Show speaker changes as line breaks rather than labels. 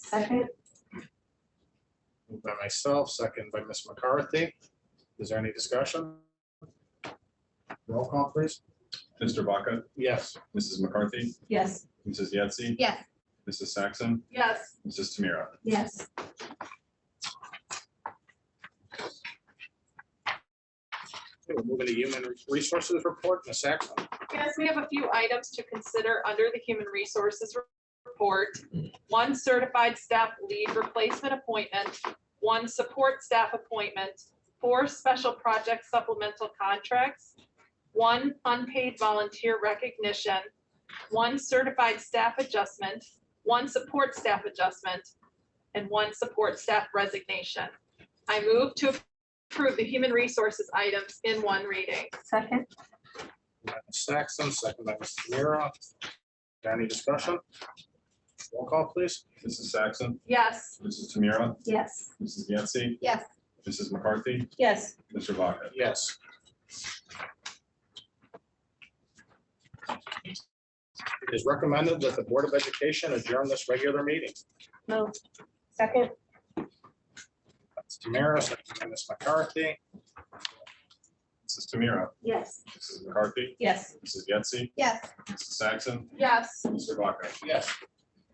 Second,
Moved by myself, second by Ms. McCarthy. Is there any discussion? Roll call, please.
Mr. Vaca,
Yes.
Mrs. McCarthy,
yes.
Mrs. Yetsey,
Yes.
Mrs. Saxon,
Yes.
Mrs. Tamira.
Yes.
Okay, we're Moving to Human Resources Report, Ms. Saxon.
Yes, we have a few items to consider under the Human Resources Report. One certified staff lead replacement appointment, one support staff appointment, four special project supplemental contracts, one unpaid volunteer recognition, one certified staff adjustment, one support staff adjustment, and one support staff resignation. I move to approve the human resources items in one reading.
Second,
Moved by Ms. Saxon, second by Ms. Tamira. Any discussion? Roll call, please.
Mrs. Saxon,
Yes.
Mrs. Tamira,
yes.
Mrs. Yetsey,
Yes.
Mrs. McCarthy,
Yes.
Mr. Vaca.
Yes. It is recommended that the Board of Education adjourn this regular meeting.
Move. Second,
That's Tamara, second by Ms. McCarthy.
Mrs. Tamira,
yes.
Mrs. McCarthy,
Yes.
Mrs. Yetsey,
Yes.
Mrs. Saxon,
Yes.
Mr. Vaca.
Yes.